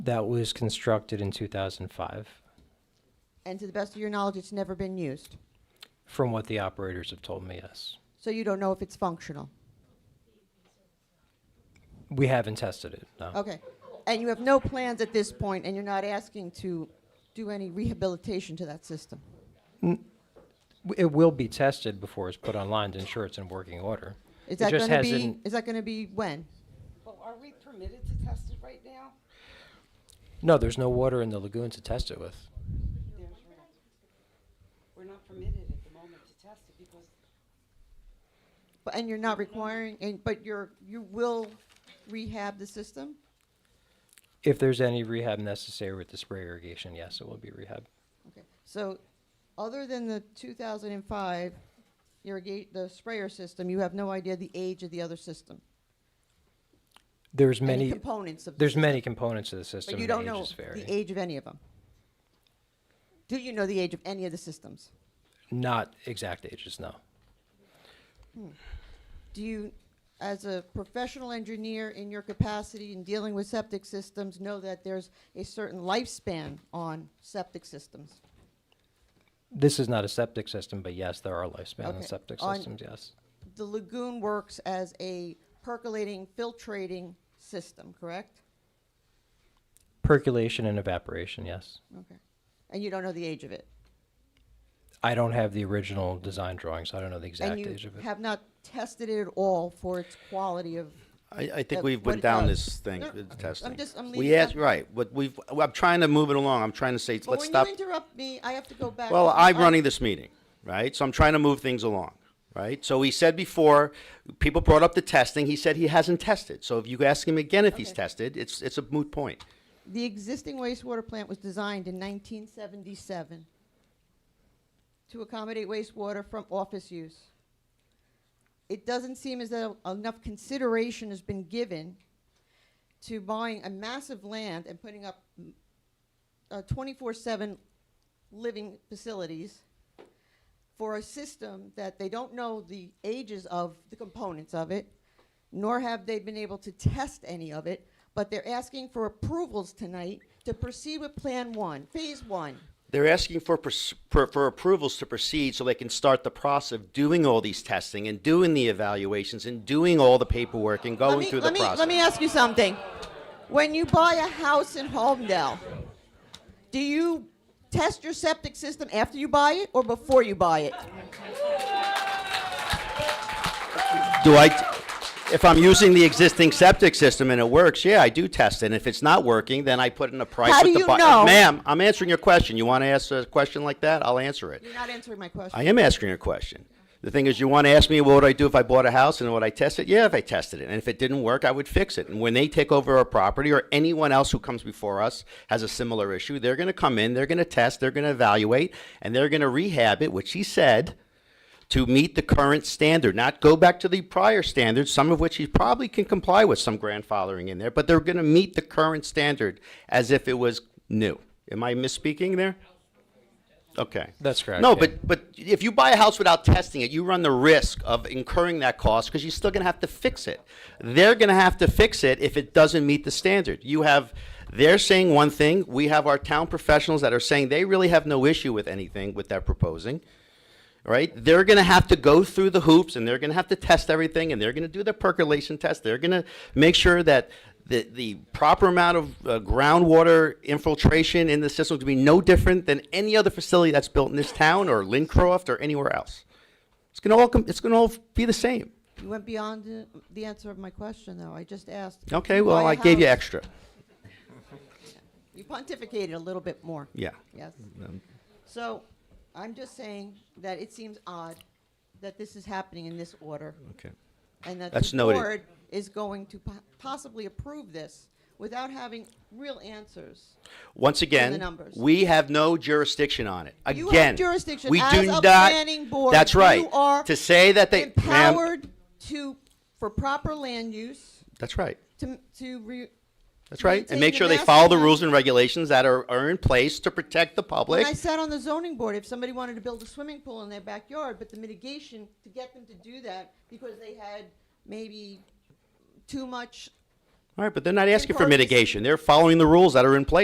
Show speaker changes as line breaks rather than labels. that was constructed in 2005,
And to the best of your knowledge, it's never been used.
from what the operators have told me, yes.
So you don't know if it's functional.
We haven't tested it, no.
Okay. And you have no plans at this point, and you're not asking to do any rehabilitation to that system.
W- It will be tested before it's put online to ensure it's in working order.
Is
It
that
just
going to be,
hasn't-
is that going to be when?
Well, are we permitted to test it right now?
No, there's no water in the lagoon to test it with.
There's your- We're not permitted at the moment to test it because
But- And you're not requiring, and, but you're, you will rehab the system?
If there's any rehab necessary with the spray irrigation, yes, it will be rehab.
Okay. So other than the 2005 irrigate, the sprayer system, you have no idea the age of the other system?
There's
Any
many,
components of the
there's
system?
many components to the system.
But you
and the
don't know
ages vary.
the age of any of them? Do you know the age of any of the systems?
Not exact ages, no.
Do you, as a professional engineer in your capacity in dealing with septic systems, know that there's a certain lifespan on septic systems?
This is not a septic system, but yes, there are lifespan in
Okay,
septic
on-
systems, yes.
The lagoon works as a percolating, filtrating system, correct?
Percolation and evaporation, yes.
Okay. And you don't know the age of it?
I don't have the original design drawing, so I don't know the exact
And
age
you
of it.
have not tested it at all for its quality of,
I, I think
Of
we've
what
went
it
down
does.
this thing,
No,
with
I'm
testing.
just- I'm leaving
We asked,
that-
right, but we've, well, I'm trying to move it along, I'm trying to say,
but
let's
when you
stop.
interrupt me, I have to go back.
Well,
to the
I'm
other-
running this meeting, right, so I'm trying to move things along, right? So he said before, people brought up the testing, he said he hasn't tested. So if you ask him again if he's
Okay.
tested, it's, it's a moot point.
The existing wastewater plant was designed in 1977 to accommodate wastewater from office use. It doesn't seem as though enough consideration has been given to buying a massive land and putting up mm, uh, 24/7 living facilities for a system that they don't know the ages of the components of it, nor have they been able to test any of it, but they're asking for approvals tonight to proceed with Plan One, Phase One.
They're asking for, pers- for, for approvals to proceed so they can start the process of doing all these testing and doing the evaluations and doing all the paperwork and
Let
going
me-
through the
let me-
process.
Let me ask you something. When you buy a house in Holmdel, do you test your septic system after you buy it or before you buy it?
Do I, if I'm using the existing septic system and it works, yeah, I do test it. And if it's not working, then I put in a price
How
with
do
the
you
bu-
know?
Ma'am, I'm answering your question. You want to ask a question like that? I'll answer it.
You're not answering my question.
I am answering your question. The thing is, you want to ask me what would I do if I bought a house and would I test it? Yeah, if I tested it. And if it didn't work, I would fix it. And when they take over our property or anyone else who comes before us has a similar issue, they're going to come in, they're going to test, they're going to evaluate, and they're going to rehab it, which he said to meet the current standard, not go back to the prior standards, some of which he probably can comply with some grandfathering in there, but they're going to meet the current standard as if it was new. Am I misspeaking there? Okay.
That's correct,
No,
yeah.
but but if you buy a house without testing it, you run the risk of incurring that cost because you're still going to have to fix it. They're going to have to fix it if it doesn't meet the standard. You have they're saying one thing, we have our town professionals that are saying they really have no issue with anything with that proposing right? They're going to have to go through the hoops and they're going to have to test everything and they're going to do the percolation test. They're going to make sure that the, the proper amount of uh, groundwater infiltration in the system is going to be no different than any other facility that's built in this town or Lincroft or anywhere else. It's going to all com- it's going to all be the same.
You went beyond the, the answer of my question, though. I just asked.
Okay,
you
well
buy a
I gave you
house-
extra.
You pontificated a little bit more.
Yeah.
Yes. So I'm just saying that it seems odd that this is happening in this order
Okay.
and that
That's
the
noted.
board is going to po- possibly approve this without having real answers.
Once again,
numbers.
we have no jurisdiction on it.
You
Again,
have jurisdiction
we
as
do
a
not.
planning board.
That's right.
You are
to say that they ma'am,
Empowered to, for proper land use,
That's right.
to, to re.
That's right.
maintain
And make
the
sure they
master
follow the
plan.
rules and regulations that are, are in place to protect the public.
When I sat on the zoning board, if somebody wanted to build a swimming pool in their backyard, but the mitigation to get them to do that because they had maybe too much
All right, but they're not asking for
purpose.
mitigation. They're following the rules that are in place.